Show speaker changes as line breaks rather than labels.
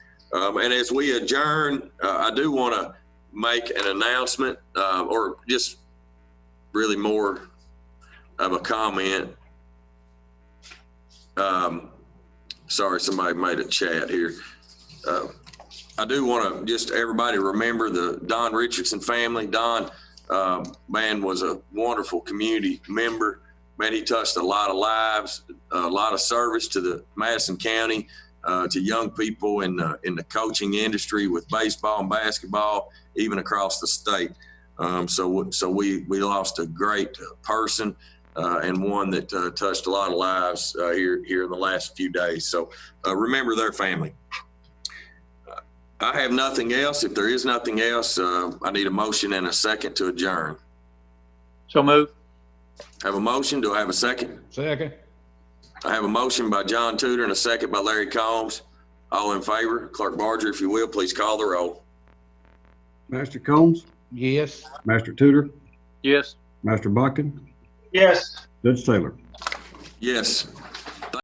Um, and as we adjourn, uh, I do want to make an announcement, uh, or just really more of a comment. Um, sorry, somebody made a chat here. Uh, I do want to just everybody remember the Don Richardson family. Don, um, man, was a wonderful community member. Man, he touched a lot of lives, a lot of service to the Madison County, uh, to young people in the, in the coaching industry with baseball and basketball, even across the state. Um, so, so we we lost a great person uh, and one that uh, touched a lot of lives uh, here here in the last few days. So, uh, remember their family. I have nothing else. If there is nothing else, uh, I need a motion and a second to adjourn.
So move.
Have a motion? Do I have a second?
Second.
I have a motion by John Tudor and a second by Larry Combs. All in favor, Clerk Barger, if you will, please call the roll.
Master Combs,
Yes.
Master Tudor,
Yes.
Master Bucking,
Yes.
Judge Taylor.
Yes,